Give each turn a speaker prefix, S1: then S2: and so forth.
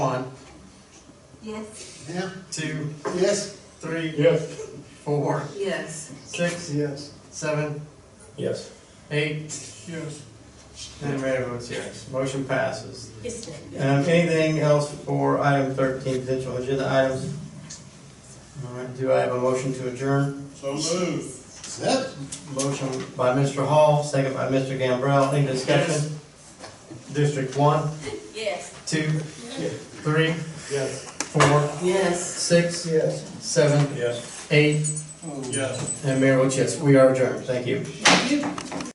S1: One,
S2: Yes.
S3: Yeah,
S1: two,
S3: yes.
S1: three,
S4: Yes.
S1: four,
S2: Yes.
S1: six,
S3: Yes.
S1: seven,
S4: Yes.
S1: eight,
S3: Yes.
S1: and Random votes yes. Motion passes.
S2: Yes.
S1: Um, anything else for item thirteen, potential agenda items? All right, do I have a motion to adjourn?
S3: So moved. Second.
S1: Motion by Mr. Hall, second by Mr. Gambrell. Any discussion? District one,
S2: Yes.
S1: two, three,
S4: Yes.
S1: four,
S2: Yes.
S1: six,
S3: Yes.
S1: seven,
S4: Yes.
S1: eight,
S3: Oh.
S4: Yes.
S1: and Mayor votes yes. We are adjourned. Thank you.